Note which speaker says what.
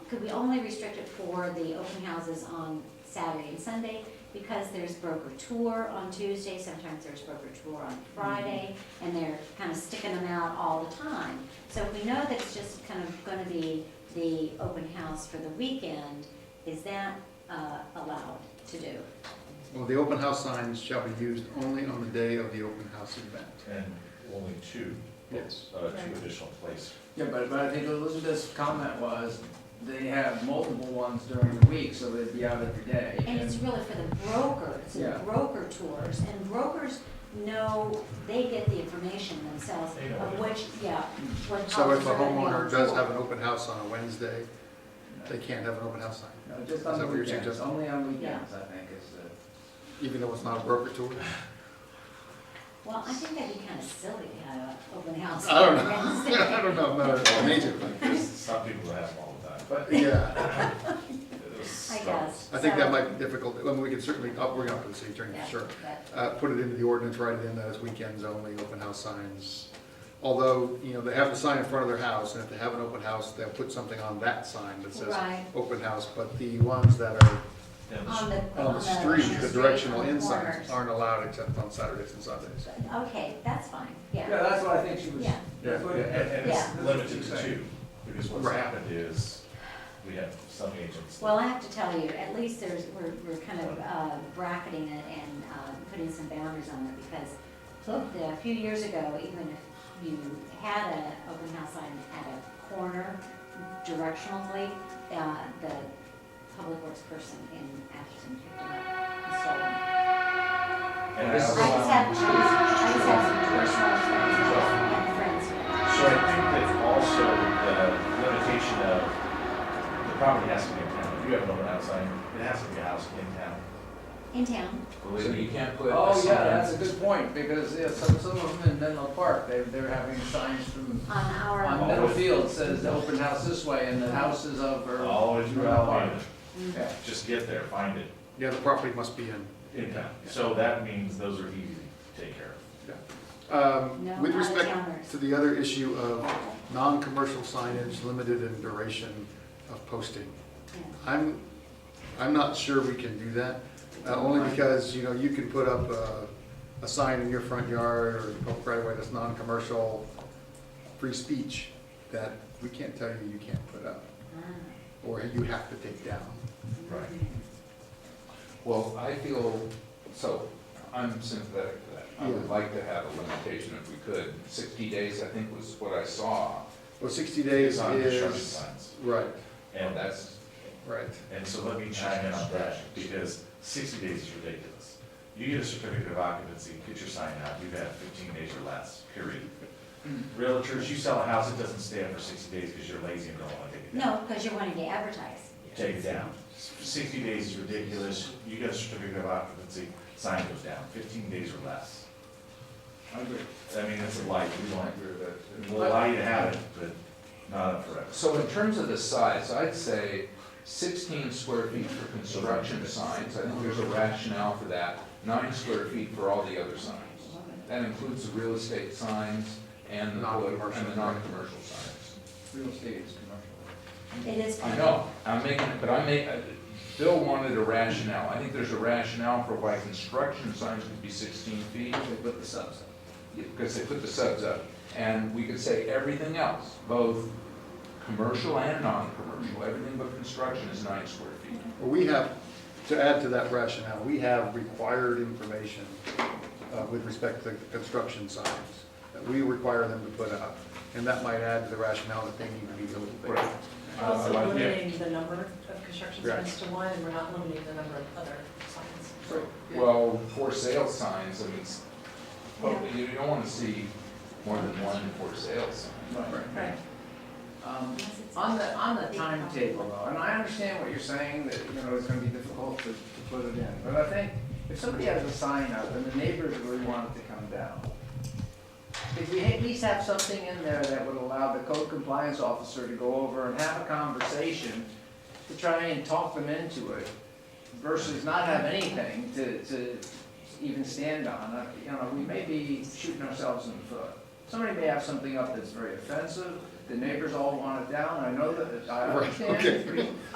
Speaker 1: could we only restrict it for the open houses on Saturday and Sunday? Because there's broker tour on Tuesday, sometimes there's broker tour on
Speaker 2: Mm-hmm.
Speaker 1: Friday, and they're kind of sticking them out all the time. So if we know that it's just kind of gonna be the open house for the weekend, is that uh, allowed to do?
Speaker 2: Well, the open house signs shall be used only on the day of the open house event.
Speaker 3: And only two,
Speaker 2: Yes.
Speaker 3: uh,
Speaker 1: Right.
Speaker 3: two additional places.
Speaker 4: Yeah, but, but I think Elizabeth's comment was, they have multiple ones during the week, so they'd be out every day.
Speaker 1: And it's really for the brokers,
Speaker 4: Yeah.
Speaker 1: and broker tours, and brokers know, they get the information themselves
Speaker 3: They know
Speaker 1: of
Speaker 3: it.
Speaker 1: which, yeah. what
Speaker 2: So if
Speaker 1: houses
Speaker 2: a
Speaker 1: are gonna be on
Speaker 2: homeowner does
Speaker 1: tour.
Speaker 2: have an open house on a Wednesday, they can't have an open house sign,
Speaker 4: uh, No, Just
Speaker 2: Is that
Speaker 4: on
Speaker 2: what you're
Speaker 4: weekends,
Speaker 2: suggesting?
Speaker 4: only on weekends, I think, is the.
Speaker 2: even though it's not a broker tour.
Speaker 1: Well, I think that'd be kind of silly to have an open house
Speaker 2: I don't
Speaker 1: on
Speaker 2: know.
Speaker 1: Wednesday.
Speaker 2: I don't know, no, no, major,
Speaker 3: There's Some people have them all the time, but
Speaker 2: but yeah,
Speaker 3: it was.
Speaker 1: I guess.
Speaker 2: I think that
Speaker 1: So-
Speaker 2: might be difficult, I mean, we could certainly, oh, I'll bring it up to the city attorney,
Speaker 1: Yeah,
Speaker 2: sure.
Speaker 1: that-
Speaker 2: Uh, put it into the ordinance, write it in that it's weekends only, open house signs. Although, you know, they have the sign in front of their house, and if they have an open house, they'll put something on that sign that says
Speaker 1: Right.
Speaker 2: open house, but the ones that are
Speaker 3: Then
Speaker 1: On the,
Speaker 2: on the street, the
Speaker 1: street,
Speaker 2: directional
Speaker 1: on the
Speaker 2: end signs
Speaker 1: corners.
Speaker 2: aren't allowed except on Saturdays and Sundays.
Speaker 1: Okay, that's fine,
Speaker 4: Yeah,
Speaker 1: yeah.
Speaker 4: that's what I think she was.
Speaker 1: Yeah.
Speaker 4: that's what-
Speaker 3: And, and
Speaker 1: Yeah.
Speaker 3: it's limited to two, because what's
Speaker 2: Right.
Speaker 3: happened is, we have some agents. that-
Speaker 1: Well, I have to tell you, at least there's, we're, we're kind of uh, bracketing it and uh, putting some boundaries on it because the- a few years ago, even if you had an open house sign at a corner directionally, uh, the public works person in Atherton picked it up and stole it.
Speaker 3: And I
Speaker 4: This
Speaker 1: I
Speaker 3: also-
Speaker 4: is-
Speaker 1: just have, I just have some personal friends, and friends.
Speaker 3: So I think that also the limitation of, the property has to be in town, if you have an open house sign, it has to be a house in town.
Speaker 1: in town.
Speaker 3: Believe
Speaker 5: So
Speaker 3: me.
Speaker 5: you can't put. a
Speaker 4: Oh, yeah,
Speaker 5: sign-
Speaker 4: that's a good point, because, yeah, some, some of them in Menlo Park, they, they're having signs from,
Speaker 1: On our,
Speaker 4: on
Speaker 1: own.
Speaker 4: Middle Field says, open house this way, and the house is over.
Speaker 3: Always around,
Speaker 4: Yeah.
Speaker 3: just get there, find it,
Speaker 2: Yeah, the property must be in.
Speaker 3: in town. So that means those are easy to take care of.
Speaker 2: Um,
Speaker 1: No,
Speaker 2: With
Speaker 1: not
Speaker 2: respect
Speaker 1: towners.
Speaker 2: to the other issue of non-commercial signage limited in duration of posting,
Speaker 1: Yeah.
Speaker 2: I'm, I'm not sure we can do that, uh, only because, you know, you can put up a, a sign in your front yard or public right away that's non-commercial, free speech, that we can't tell you you can't put up,
Speaker 1: Ah.
Speaker 2: or you have to take down.
Speaker 3: Right.
Speaker 5: Well, I feel, so I'm sympathetic to that. I would
Speaker 2: Yeah.
Speaker 5: like to have a limitation if we could. Sixty days, I think, was what I saw.
Speaker 2: Well, sixty days
Speaker 3: On construction
Speaker 2: is,
Speaker 3: signs.
Speaker 2: right,
Speaker 5: And
Speaker 3: And,
Speaker 5: that's,
Speaker 2: right.
Speaker 3: and so let me chime in on that, because sixty days is ridiculous. You get a certificate of occupancy, get your sign out, you've had fifteen days or less, period. Realtors, you sell a house, it doesn't stay up for sixty days because you're lazy and don't want to take it down.
Speaker 1: No, because you're wanting to advertise.
Speaker 3: Take it down. Sixty days is ridiculous, you get a certificate of occupancy, sign goes down, fifteen days or less.
Speaker 4: I agree.
Speaker 3: I mean, it's a light, we
Speaker 5: I
Speaker 3: want,
Speaker 5: agree with that.
Speaker 3: we'll allow you to have it, but not up forever.
Speaker 5: So in terms of the size, I'd say sixteen square feet for construction signs. I think there's a rationale for that. Nine square feet for all the other signs. That includes the real estate signs and the,
Speaker 2: Non-commercial.
Speaker 5: and the non-commercial signs.
Speaker 4: Real estate is commercial.
Speaker 1: It is.
Speaker 5: I know, I'm making, but I make, uh, Bill wanted a rationale, I think there's a rationale for why construction signs could be sixteen feet,
Speaker 4: They put the subs up.
Speaker 5: because they put the subs up. And we could say everything else, both commercial and non-commercial, everything but construction is nine square feet.
Speaker 2: Well, we have, to add to that rationale, we have required information uh, with respect to construction signs that we require them to put up, and that might add to the rationale that they need to be a little bit.
Speaker 5: Right.
Speaker 6: Also
Speaker 5: Uh, yeah.
Speaker 6: limiting the number of construction
Speaker 2: Right.
Speaker 6: signs to one, and we're not limiting the number of other signs.
Speaker 5: Well, for sale signs, I mean, it's- you don't wanna see more than one for sale sign.
Speaker 4: Right.
Speaker 6: Right.
Speaker 4: Um, On the, on the timetable though, and I understand what you're saying, that, you know, it's gonna be difficult to, to put it in, but I think if somebody has a sign up and the neighbors really want it to come down, if we at least have something in there that would allow the code compliance officer to go over and have a conversation to try and talk them into it versus not have anything to, to even stand on, Uh, you know, we may be shooting ourselves in the foot. Somebody may have something up that's very offensive,
Speaker 2: the neighbors all want it down, I know that, I
Speaker 4: Right, okay.
Speaker 2: understand.